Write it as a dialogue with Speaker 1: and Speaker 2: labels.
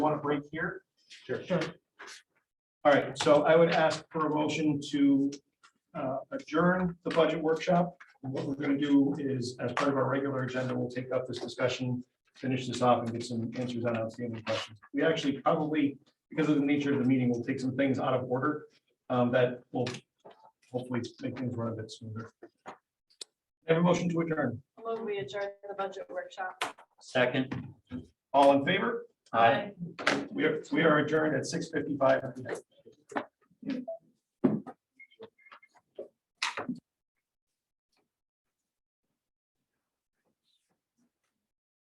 Speaker 1: want to break here? Sure. All right, so I would ask for a motion to uh, adjourn the budget workshop. What we're going to do is, as part of our regular agenda, we'll take up this discussion, finish this off and get some answers on outstanding questions. We actually probably, because of the nature of the meeting, we'll take some things out of order um, that will hopefully make things run a bit smoother. Have a motion to adjourn.
Speaker 2: Move we adjourn the budget workshop.
Speaker 3: Second.
Speaker 1: All in favor?
Speaker 3: Aye.
Speaker 1: We are, we are adjourned at six fifty-five.